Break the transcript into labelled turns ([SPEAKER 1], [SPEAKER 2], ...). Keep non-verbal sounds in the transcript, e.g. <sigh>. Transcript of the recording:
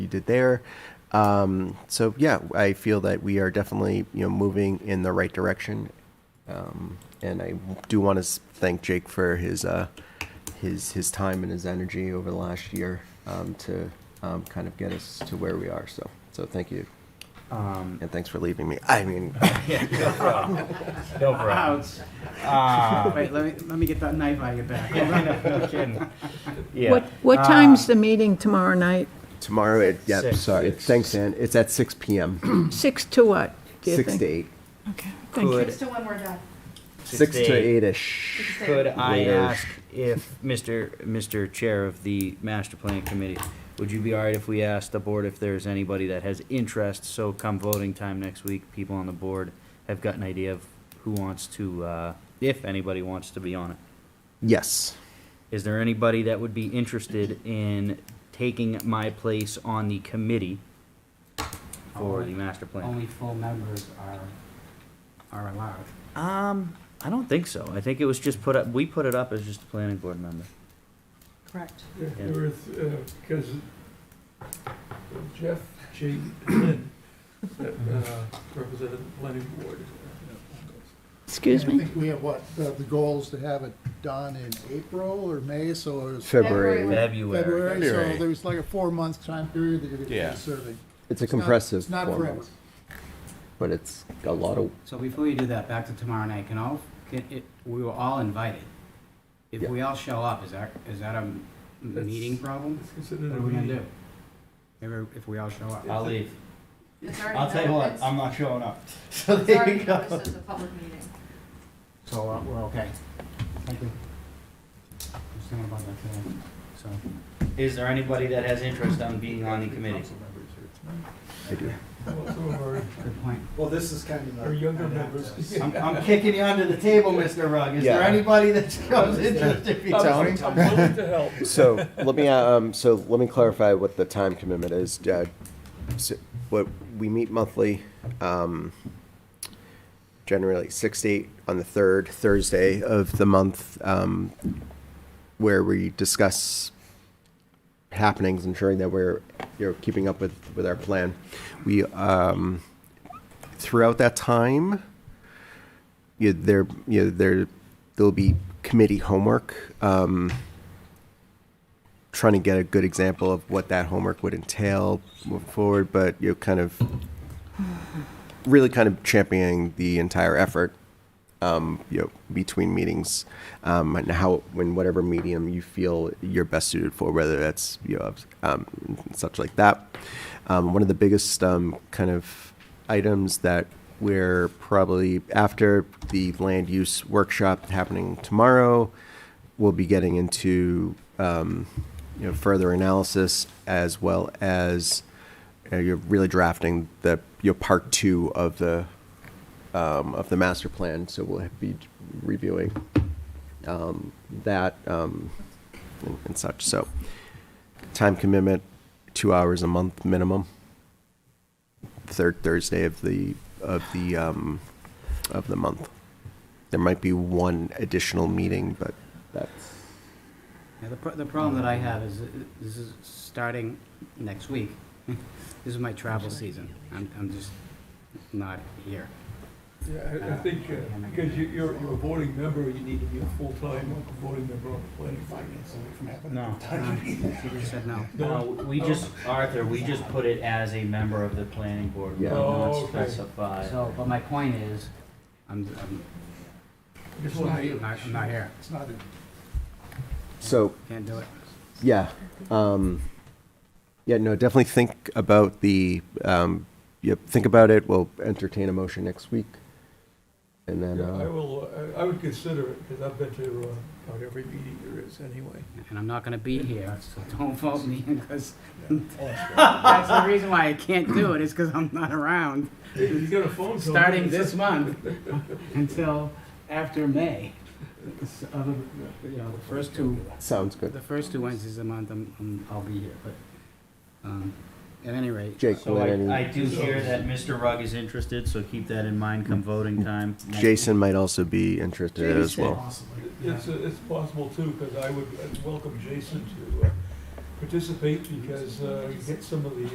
[SPEAKER 1] did there. Um, so yeah, I feel that we are definitely you know moving in the right direction, um, and I do want to thank Jake for his uh, his his time and his energy over the last year um, to um, kind of get us to where we are. So so thank you,
[SPEAKER 2] Um,
[SPEAKER 1] and thanks for leaving me. I <laughs> mean,
[SPEAKER 3] No problem.
[SPEAKER 2] ouch.
[SPEAKER 3] Ah,
[SPEAKER 2] Wait, let me, let me get that knife out of your back.
[SPEAKER 3] yeah, I know, no kidding.
[SPEAKER 4] What,
[SPEAKER 3] Yeah,
[SPEAKER 4] what
[SPEAKER 1] Um,
[SPEAKER 4] time's the meeting tomorrow night?
[SPEAKER 1] tomorrow. It, yeah,
[SPEAKER 3] Six.
[SPEAKER 1] sorry. Thanks, Dan. It's at six p.m.
[SPEAKER 4] Six to what, do you think?
[SPEAKER 1] six to eight.
[SPEAKER 4] Okay, thank you.
[SPEAKER 3] Could-
[SPEAKER 5] Six to one more done.
[SPEAKER 1] Six to eight
[SPEAKER 5] Six
[SPEAKER 1] ish.
[SPEAKER 5] to
[SPEAKER 3] Could I
[SPEAKER 1] Later.
[SPEAKER 3] ask if, Mr. Mr. Chair of the Master Plan Committee, would you be all right if we asked the board if there's anybody that has interest? So come voting time next week, people on the board have got an idea of who wants to, uh, if anybody wants to be on it.
[SPEAKER 1] Yes.
[SPEAKER 3] Is there anybody that would be interested in taking my place on the committee for the master plan?
[SPEAKER 2] Only full members are, are allowed.
[SPEAKER 3] Um, I don't think so. I think it was just put up, we put it up as just a planning board member.
[SPEAKER 5] Correct.
[SPEAKER 6] Yeah,
[SPEAKER 3] Yeah.
[SPEAKER 6] There was, because Jeff G. <coughs> uh, represented the planning board.
[SPEAKER 4] Excuse
[SPEAKER 7] I
[SPEAKER 4] me?
[SPEAKER 7] think we have what, the, the goal is to have it done in April or May, so it's
[SPEAKER 1] February.
[SPEAKER 5] February.
[SPEAKER 3] February.
[SPEAKER 7] February, so
[SPEAKER 8] February.
[SPEAKER 7] there's like a four-month time period that you're gonna
[SPEAKER 8] Yeah.
[SPEAKER 7] be serving.
[SPEAKER 1] It's a
[SPEAKER 7] not-
[SPEAKER 1] compressive
[SPEAKER 7] it's not
[SPEAKER 1] four
[SPEAKER 7] forever.
[SPEAKER 1] months, but it's a lot of
[SPEAKER 2] So before you do that, back to tomorrow night, can all, can it, we were all invited. If
[SPEAKER 1] Yeah.
[SPEAKER 2] we all show up, is that, is that a m-
[SPEAKER 6] That's-
[SPEAKER 2] meeting problem?
[SPEAKER 6] It's considered
[SPEAKER 2] What
[SPEAKER 6] a
[SPEAKER 2] are we gonna
[SPEAKER 6] meeting.
[SPEAKER 2] do? Maybe if we all show up.
[SPEAKER 3] I'll leave.
[SPEAKER 5] It's already
[SPEAKER 3] I'll tell you
[SPEAKER 5] known-
[SPEAKER 3] what,
[SPEAKER 5] it's-
[SPEAKER 3] I'm not showing up. <laughs> So
[SPEAKER 5] It's
[SPEAKER 3] there
[SPEAKER 5] already
[SPEAKER 3] you go.
[SPEAKER 5] noticed as a public meeting.
[SPEAKER 2] So uh, we're okay. Thank you. I was thinking about that today, so.
[SPEAKER 3] Is there anybody that has interest on being on the committee?
[SPEAKER 6] Council members here tonight.
[SPEAKER 1] I do.
[SPEAKER 6] Well, Some of our-
[SPEAKER 2] Good point.
[SPEAKER 7] Well, this is kind of.
[SPEAKER 6] our
[SPEAKER 2] <laughs>
[SPEAKER 6] younger members. <laughs>
[SPEAKER 3] I'm, I'm kicking you under the table, Mr. Rugg. Is there
[SPEAKER 1] Yeah.
[SPEAKER 3] anybody that shows interest if you
[SPEAKER 6] I'm I'm willing to help.
[SPEAKER 1] So let me uh, um, so let me clarify what the time commitment is. Uh, so what we meet monthly, um, generally six to eight on the third Thursday of the month, um, where we discuss happenings, ensuring that we're you know keeping up with with our plan. We um, throughout that time you there you know, there there'll be committee homework um trying to get a good example of what that homework would entail moving forward but you know kind of really kind of championing the entire effort um you know between meetings um and how when whatever medium you feel you're best suited for whether that's you know um, such like that um, one of the biggest um, kind of items that we're probably after the land use workshop happening tomorrow, we'll be getting into um, you know further analysis as well as uh, you're really drafting the your part two of the um, of the master plan. So we'll be reviewing um, that um, and, and such. So time commitment, two hours a month minimum. Third Thursday of the of the um, of the month. There might be one additional meeting, but that's
[SPEAKER 2] Yeah, the, pro- the problem that I have is, uh, this is starting next week. <laughs> This is my travel season. I'm, I'm just not here.
[SPEAKER 6] Yeah, I- I think, uh, because you- you're, you're a voting member, you need to be a full-time voting member on the planning board. <laughs>
[SPEAKER 3] No.
[SPEAKER 2] Uh, She just said no.
[SPEAKER 3] No, we just, Arthur, we just put it as a member of the planning board. We
[SPEAKER 1] Yeah.
[SPEAKER 3] did not
[SPEAKER 6] Oh, okay.
[SPEAKER 3] specify.
[SPEAKER 2] So, but my point is, I'm, I'm
[SPEAKER 6] It's
[SPEAKER 2] I'm not, I'm not here.
[SPEAKER 7] It's not, a-
[SPEAKER 1] so
[SPEAKER 2] Can't do it.
[SPEAKER 1] yeah, um, yeah. No, definitely think about the um, yeah, think about it. We'll entertain a motion next week, and then
[SPEAKER 6] Yeah, I
[SPEAKER 1] uh,
[SPEAKER 6] will, uh, I I would consider it, because I've been to uh, about every meeting there is anyway.
[SPEAKER 2] And I'm not gonna be here, so <laughs> don't vote me, because <laughs> that's the reason why I can't do it, is because I'm not around.
[SPEAKER 6] Hey, You got a phone call.
[SPEAKER 2] starting this month until after May. It's other- You know, the first two,
[SPEAKER 1] sounds good.
[SPEAKER 2] the first two Wednesdays a month, I'm- I'm, I'll be here, but, um, at any rate.
[SPEAKER 1] Jake,
[SPEAKER 3] So
[SPEAKER 1] let any-
[SPEAKER 3] I, I do hear that Mr. Rugg is interested, so keep that in mind come voting time.
[SPEAKER 1] Jason might also be interested as
[SPEAKER 2] Jason.
[SPEAKER 1] well.
[SPEAKER 6] It's, it's possible too, because I would uh, welcome Jason to uh, participate because uh, get some of the